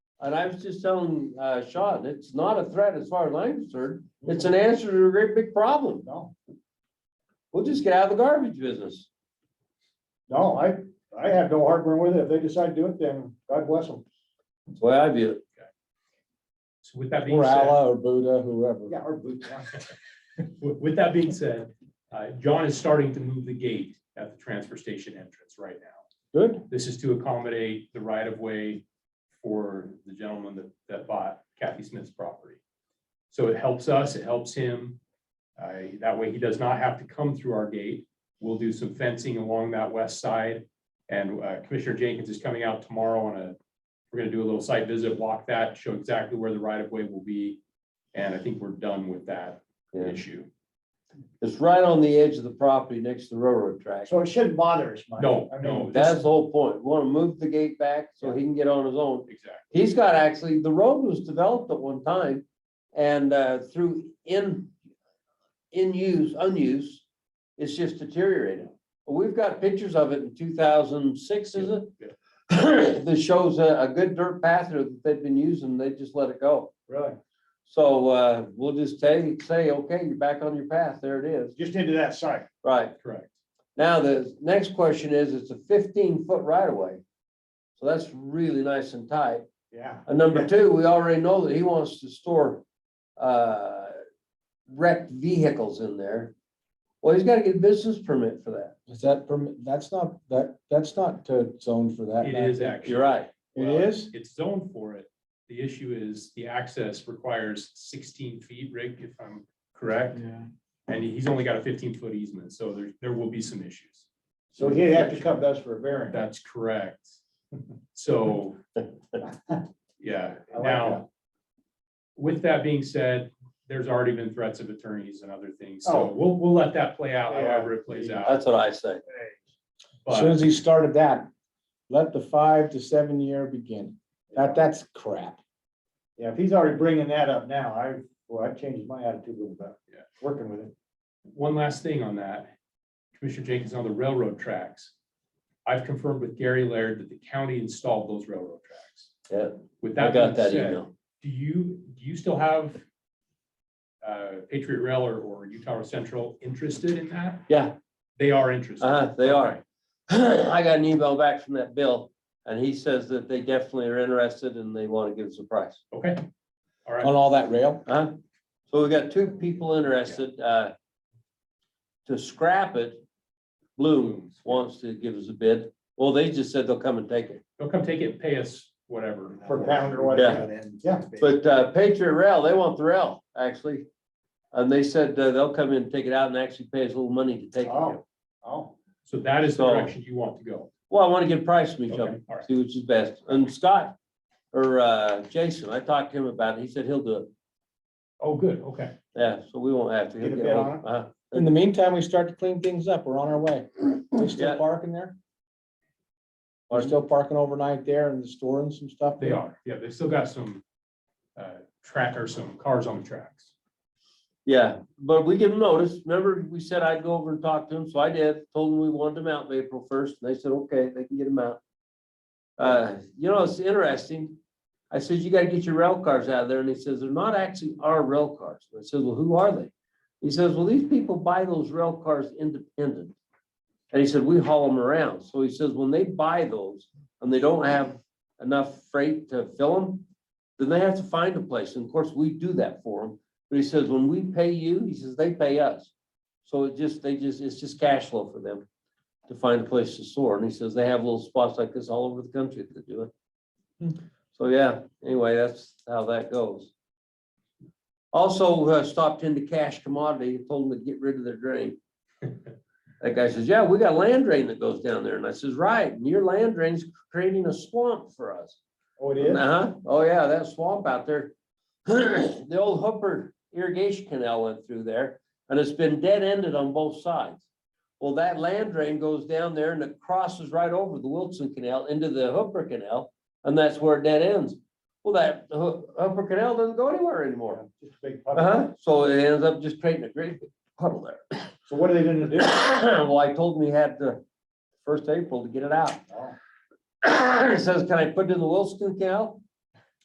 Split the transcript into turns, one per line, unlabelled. And I was just telling, uh, Sean, it's not a threat as far as I'm concerned. It's an answer to a great big problem.
No,
We'll just get out of the garbage business.
no, I, I have no heartburn with it. If they decide to do it, then God bless them.
That's the way I view it.
So with that being
Or
said,
Allah or Buddha, whoever.
Yeah, our boot, yeah.
with with that being said, uh, John is starting to move the gate at the transfer station entrance right now.
Good.
This is to accommodate the right of way for the gentleman that, that bought Kathy Smith's property. So it helps us, it helps him. Uh, that way he does not have to come through our gate. We'll do some fencing along that west side. And uh, Commissioner Jenkins is coming out tomorrow on a, we're gonna do a little site visit, walk that, show exactly where the right of way will be. And I think we're done with that
Yeah.
issue.
It's right on the edge of the property next to the railroad track.
So it shouldn't bother us much.
No,
I mean,
no.
That's the whole point. We Want to move the gate back so he can get on his own.
Exactly.
He's got actually, the road was developed at one time and uh, through in, in use, unused, it's just deteriorated. We've got pictures of it in two thousand six, is it?
Yeah.
That shows a, a good dirt path there that they've been using, they just let it go.
Really,
So uh, we'll just say, say, okay, you're back on your path, there it is.
just into that site.
Right.
Correct.
Now, the next question is, it's a fifteen foot right of way. So that's really nice and tight.
Yeah,
And number two, we already know that he wants to store uh wrecked vehicles in there. Well, he's gotta get a business permit for that.
Is that permit? That's not, that, that's not uh, zoned for that.
It
Matt.
is actually.
You're right.
It
Well,
is?
It's zoned for it. The issue is the access requires sixteen feet, Rick, if I'm correct.
Yeah.
And he's only got a fifteen foot easement, so there, there will be some issues.
so he'd have to come to us for a variance.
That's correct. So, yeah,
I like
now. With that being said, there's already been threats of attorneys and other things, so
Oh.
we'll, we'll let that play out
Yeah.
however it plays out.
That's what I say.
As soon
But
as he started that, let the five to seven year begin. That, that's crap.
Yeah, if he's already bringing that up now, I, well, I changed my attitude a little bit.
Yeah.
Working with it.
One last thing on that, Commissioner Jenkins, on the railroad tracks. I've confirmed with Gary Laird that the county installed those railroad tracks.
Yeah,
With
I
that
got
being
that
said,
email.
do you, do you still have uh, Patriot Rail or, or Utah Central interested in that?
Yeah,
They are interested.
uh, they
Okay.
are. I got an email back from that bill and he says that they definitely are interested and they wanna give us a price.
Okay, all right.
On all that rail,
Huh? So we got two people interested, uh, to scrap it. Blooms wants to give us a bid. Well, they just said they'll come and take it.
They'll come take it, pay us whatever.
Per pound or whatever. Yeah.
But, uh, Patriot Rail, they want the rail, actually. And they said uh, they'll come in and take it out and actually pay us a little money to take it.
Oh, oh,
So that is the
So-
direction you want to go.
Well, I want to get a price from each
Okay,
other,
all right.
see which is best. And Scott or, uh, Jason, I talked to him about it. He said he'll do it.
Oh, good, okay.
Yeah, so we won't have to. He'll
Get a
get
bid
hold-
on
uh-huh.
in the meantime, we start to clean things up. We're on our way. We
Yeah.
still parking there? We're
Pardon?
still parking overnight there and storing some stuff?
They are, yeah, they've still got some uh, track or some cars on the tracks.
Yeah, but we give them notice. Remember, we said I'd go over and talk to them, so I did. Told them we wanted them out in April first, and they said, okay, they can get them out. Uh, you know, it's interesting. I said, you gotta get your rail cars out of there, and he says, they're not actually our rail cars. And I said, well, who are they? He says, well, these people buy those rail cars independent. And he said, we haul them around. So he says, when they buy those and they don't have enough freight to fill them, then they have to find a place. And of course, we do that for them. But he says, when we pay you, he says, they pay us. So it just, they just, it's just cash flow for them to find a place to store. And he says, they have little spots like this all over the country that do it. So yeah, anyway, that's how that goes. Also uh, stopped into Cash Commodity, and told them to get rid of their drain. That guy says, yeah, we got a land drain that goes down there. And I says, right, and your land drain's creating a swamp for us.
oh, it is?
Uh-huh, oh yeah, that swamp out there. The old Hooper irrigation canal went through there and it's been dead-ended on both sides. Well, that land drain goes down there and it crosses right over the Wilson Canal into the Hooper Canal and that's where it dead ends. Well, that Hoo- Hooper Canal doesn't go anywhere anymore.
Just a big puddle.
Uh-huh, so it ends up just creating a great big puddle there.
So what are they gonna do?
Well, I told him he had the first April to get it out.
Oh,
He says, can I put it in the Wilson Canal?